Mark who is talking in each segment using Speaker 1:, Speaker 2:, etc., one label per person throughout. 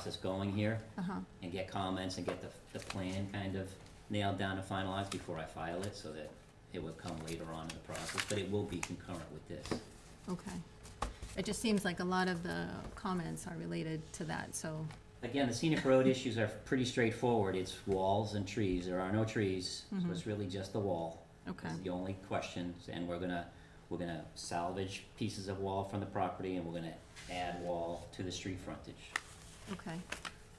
Speaker 1: process going here
Speaker 2: Uh-huh,
Speaker 1: and get comments and get the, the plan kind of nailed down and finalized before I file it, so that it would come later on in the process, but it will be concurrent with this.
Speaker 2: okay. It just seems like a lot of the comments are related to that, so,
Speaker 1: Again, the scenic road issues are pretty straightforward, it's walls and trees, there are no trees, so it's really just the wall.
Speaker 2: Mm-hmm. okay,
Speaker 1: It's the only questions, and we're gonna, we're gonna salvage pieces of wall from the property, and we're gonna add wall to the street frontage.
Speaker 2: okay.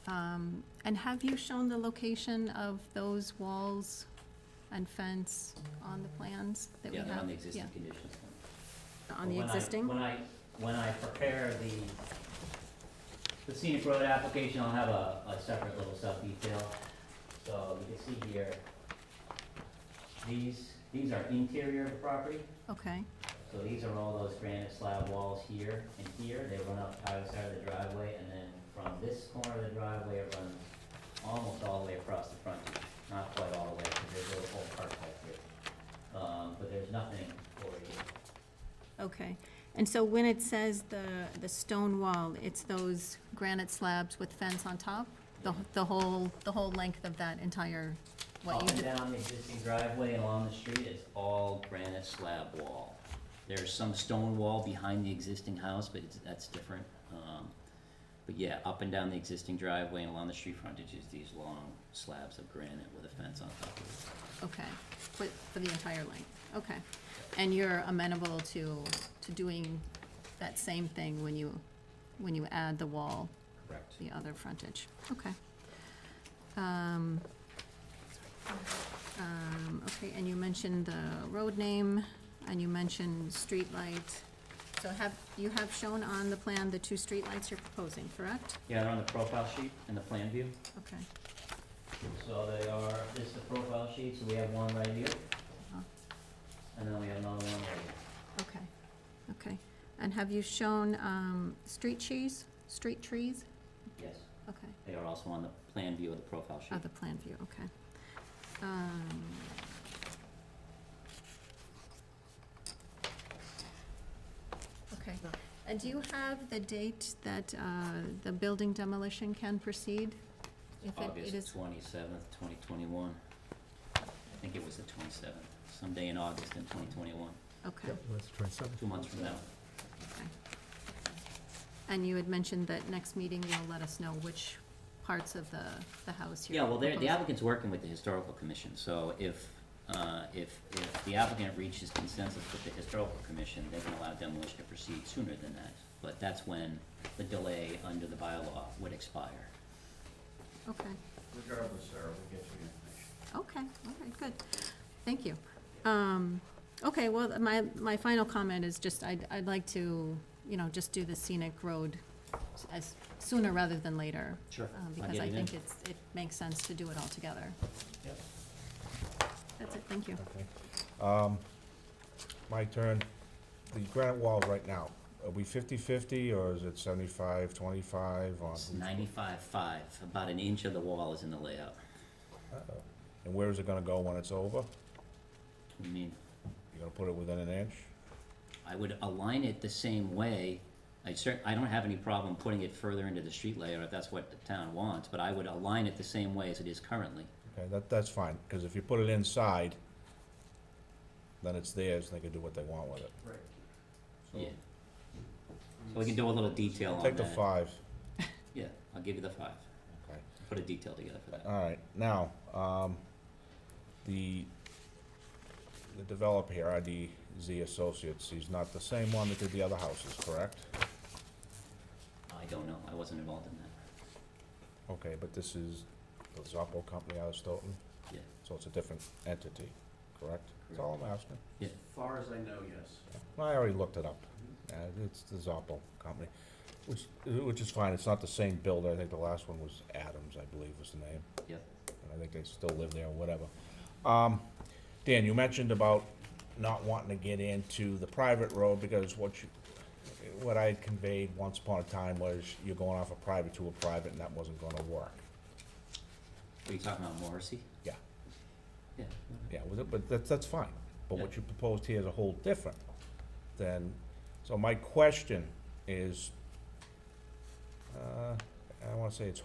Speaker 2: Um, and have you shown the location of those walls and fence on the plans that we
Speaker 1: Yeah,
Speaker 2: have?
Speaker 1: they're on the existing
Speaker 2: Yeah,
Speaker 1: conditions.
Speaker 2: on the
Speaker 1: When I-
Speaker 2: existing?
Speaker 1: When I, when I prepare the, the scenic road application, I'll have a, a separate little sub-detail. So you can see here, these, these are interior of the property,
Speaker 2: Okay,
Speaker 1: so these are all those granite slab walls here and here, they run up either side of the driveway, and then from this corner of the driveway, it runs almost all the way across the frontage, not quite all the way, because there's a little whole park back here. Um, but there's nothing over here.
Speaker 2: okay. And so when it says the, the stone wall, it's those granite slabs with fence on top? The, the whole, the whole length of that entire, what
Speaker 1: Up and
Speaker 2: you,
Speaker 1: down the existing driveway and along the street is all granite slab wall. There's some stone wall behind the existing house, but it's, that's different. Um, But yeah, up and down the existing driveway and along the street frontage is these long slabs of granite with a fence on top of it.
Speaker 2: okay, for, for the entire length, okay. And you're amenable to, to doing that same thing when you, when you add the wall,
Speaker 1: Correct.
Speaker 2: the other frontage, okay. Um, um, okay, and you mentioned the road name, and you mentioned street light. So have, you have shown on the plan the two street lights you're proposing, correct?
Speaker 1: Yeah, they're on the profile sheet and the plan view.
Speaker 2: Okay,
Speaker 1: So they are, this is the profile sheet, so we have one right here.
Speaker 2: Uh-huh.
Speaker 1: And then we have another one right here.
Speaker 2: okay, okay. And have you shown, um, street trees, street trees?
Speaker 1: Yes,
Speaker 2: Okay.
Speaker 1: they are also on the plan view of the profile sheet.
Speaker 2: Oh, the plan view, okay. Um, Okay, and do you have the date that uh, the building demolition can proceed? If it- it
Speaker 1: August
Speaker 2: is-
Speaker 1: twenty-seventh, twenty twenty-one. I think it was the twenty-seventh, someday in August in twenty twenty-one,
Speaker 2: Okay,
Speaker 3: Yep, that's twenty-seven.
Speaker 1: two months from now.
Speaker 2: okay. And you had mentioned that next meeting you'll let us know which parts of the, the house you're
Speaker 1: Yeah, well, they're- the
Speaker 2: proposing.
Speaker 1: applicant's working with the historical commission, so if, uh, if, if the applicant reaches consensus with the historical commission, they can allow demolition to proceed sooner than that. But that's when the delay under the bylaw would expire.
Speaker 2: Okay.
Speaker 4: Regardless, Sarah, we'll get you information.
Speaker 2: Okay, all right, good. Thank you. Um, okay, well, my, my final comment is just, I'd, I'd like to, you know, just do the scenic road s- as, sooner rather than later.
Speaker 1: Sure.
Speaker 2: um,
Speaker 1: I'll
Speaker 2: Because
Speaker 1: get
Speaker 2: I
Speaker 1: it in.
Speaker 2: think it's, it makes sense to do it all together.
Speaker 1: Yep.
Speaker 2: That's it, thank you.
Speaker 3: Okay. Um, My turn. The granite wall right now, are we fifty-fifty or is it seventy-five, twenty-five on?
Speaker 1: It's ninety-five-five, about an inch of the wall is in the layout.
Speaker 3: Uh-oh. And where is it gonna go when it's over?
Speaker 1: I mean,
Speaker 3: You gonna put it within an inch?
Speaker 1: I would align it the same way. I cer- I don't have any problem putting it further into the street layer if that's what the town wants, but I would align it the same way as it is currently.
Speaker 3: Okay, that, that's fine, cause if you put it inside, then it's theirs, and they can do what they want with it.
Speaker 4: Right.
Speaker 1: Yeah. So we can do a little detail on that.
Speaker 3: Take the five,
Speaker 1: Yeah, I'll give you the five.
Speaker 3: okay.
Speaker 1: Put a detail together for that.
Speaker 3: All right, now, um, the, the developer here, IDZ Associates, he's not the same one that did the other houses, correct?
Speaker 1: I don't know, I wasn't involved in that.
Speaker 3: Okay, but this is the Zoppo company out of Stoughton,
Speaker 1: Yeah,
Speaker 3: so it's a different entity, correct? That's all I'm asking.
Speaker 1: yeah.
Speaker 4: As far as I know, yes.
Speaker 3: I already looked it up. Uh, it's the Zoppo company, which, which is fine, it's not the same builder, I think the last one was Adams, I believe was the name.
Speaker 1: Yep.
Speaker 3: And I think they still live there or whatever. Um, Dan, you mentioned about not wanting to get into the private road because what you, what I had conveyed once upon a time was you're going off a private to a private and that wasn't gonna work.
Speaker 1: Are you talking about Morrissey?
Speaker 3: Yeah,
Speaker 1: Yeah.
Speaker 3: yeah, with it- but that's, that's fine. But what
Speaker 1: Yeah.
Speaker 3: you proposed here is a whole different than, so my question is, uh, I wanna say it's